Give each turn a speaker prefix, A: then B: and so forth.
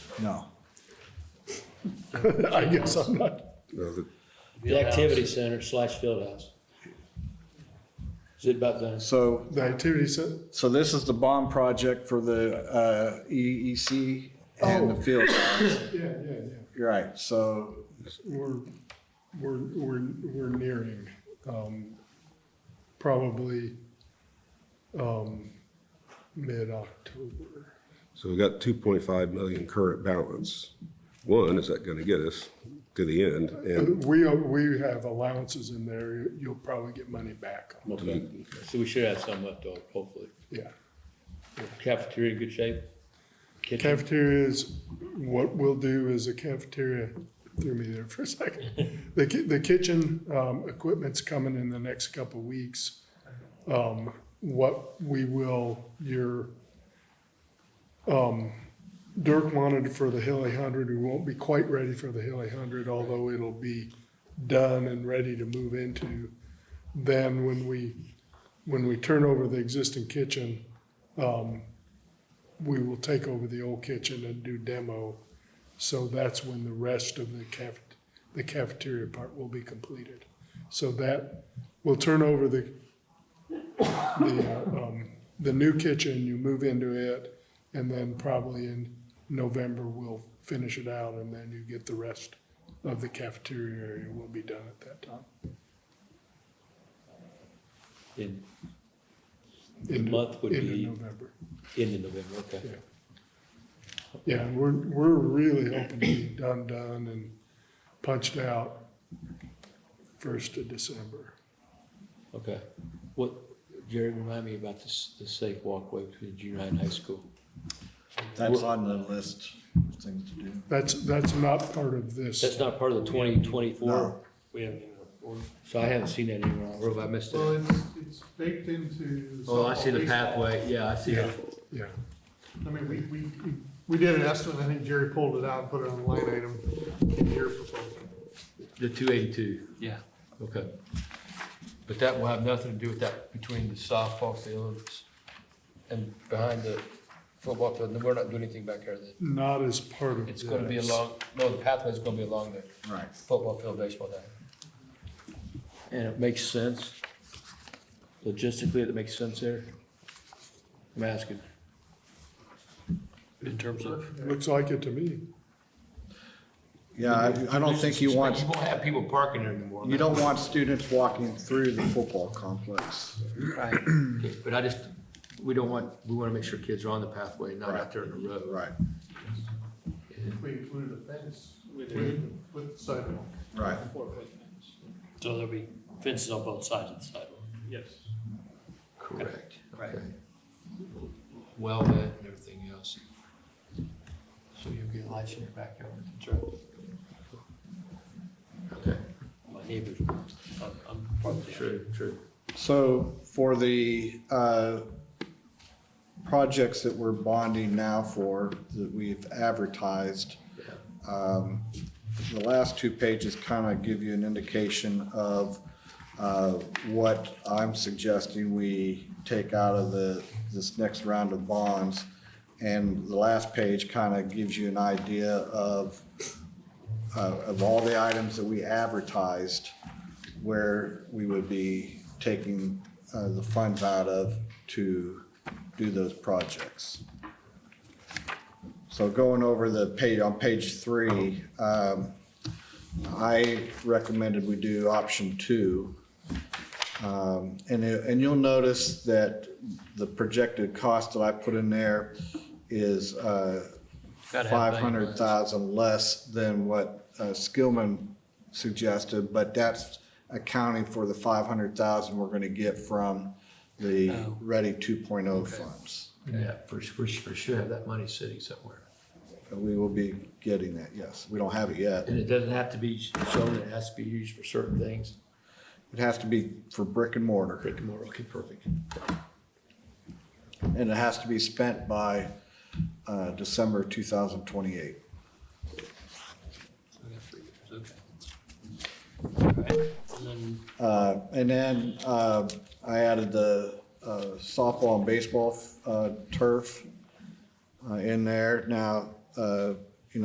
A: No.
B: I guess I'm not.
C: No, the-
D: The activity center slash field house. Is it about done?
A: So,
B: The activity set,
A: so this is the bond project for the uh, EEC and the field.
B: yeah, yeah, yeah.
A: You're right. So,
B: We're, we're, we're, we're nearing, um, probably, um, mid-October.
C: So we got two point five million current balance. One, is that gonna get us to the end? And
B: We, are- we have allowances in there, you'll probably get money back,
D: Okay. So we should have some left over, hopefully.
B: yeah.
D: Cafeteria in good shape? Kitchen?
B: Cafeteria is, what we'll do is a cafeteria, threw me there for a second. The, ki- the kitchen, um, equipment's coming in the next couple of weeks. Um, what we will, your, um, Dirk wanted for the Hilly Hundred, we won't be quite ready for the Hilly Hundred, although it'll be done and ready to move into. Then when we, when we turn over the existing kitchen, we will take over the old kitchen and do demo. So that's when the rest of the caf, the cafeteria part will be completed. So that, we'll turn over the, the, uh, um, the new kitchen, you move into it, and then probably in November, we'll finish it out, and then you get the rest of the cafeteria area will be done at that time.
D: In, The
B: Into-
D: month would be-
B: Into November.
D: end of November, okay.
B: Yeah, and we're, we're really hoping to be done, done and punched out first of December.
D: Okay. What, Jerry, remind me about this, the safe walkway between junior high and high school.
A: that's on the list of things to do.
B: That's, that's not part of
D: That's
B: this.
D: not part of the twenty twenty-four?
A: No.
D: We haven't, even- or- so I haven't seen that anywhere, or have I missed
E: Well,
D: it?
E: it's, it's baked into.
D: Oh, I see the
E: softball,
D: pathway, yeah, I see it.
B: Yeah,
E: baseball. I mean, we, we, we- we did an estimate, I think Jerry pulled it out and put it on the line item in your proposal.
D: The two eighty-two? Yeah. Okay. But that will have nothing to do with that between the softball fields and behind the football field. We're not doing anything back here then.
B: not as part of
D: It's gonna be
B: this.
D: along, no, the pathway's gonna be along the
A: Right.
D: football field, baseball diamond. And it makes sense. Logistically, it makes sense there. I'm asking. In terms of.
B: Looks like it to me.
A: Yeah, I, I don't think you want,
D: You won't have people parking there anymore.
A: you don't want students walking through the football complex.
D: Right, but I just, we don't want, we wanna make sure kids are on the pathway, not out there in the road.
A: Right,
E: We included a fence with, with sidewalk.
A: right.
E: Four-foot
F: So there'll be fences on both sides of the sidewalk.
E: Yes.
D: Correct.
F: Right.
D: Okay. Well, that and everything else. So you'll get lights in your backyard. Okay,
F: My neighbors, I'm, I'm part of the-
D: true, true.
A: So for the uh, projects that we're bonding now for, that we've advertised, um, the last two pages kind of give you an indication of uh, what I'm suggesting we take out of the, this next round of bonds. And the last page kind of gives you an idea of, uh, of all the items that we advertised, where we would be taking uh, the funds out of to do those projects. So going over the page, on page three, um, I recommended we do option two. Um, And, it- and you'll notice that the projected cost that I put in there is uh,
D: Gotta have
A: five hundred
D: value-wise.
A: thousand less than what uh, Skillman suggested, but that's accounting for the five hundred thousand we're gonna get from the
D: Oh.
A: Ready two funds.
D: Yeah, for, for, for sure have that money sitting somewhere.
A: We will be getting that, yes. We don't have it yet.
D: And it doesn't have to be shown, it has to be used for certain things.
A: It has to be for brick and mortar,
D: Brick and mortar, okay, perfect.
A: and it has to be spent by uh, December 2028.
F: Okay. All right, and then
A: Uh, And then uh, I added the uh, softball and baseball uh, turf uh, in there. Now, uh,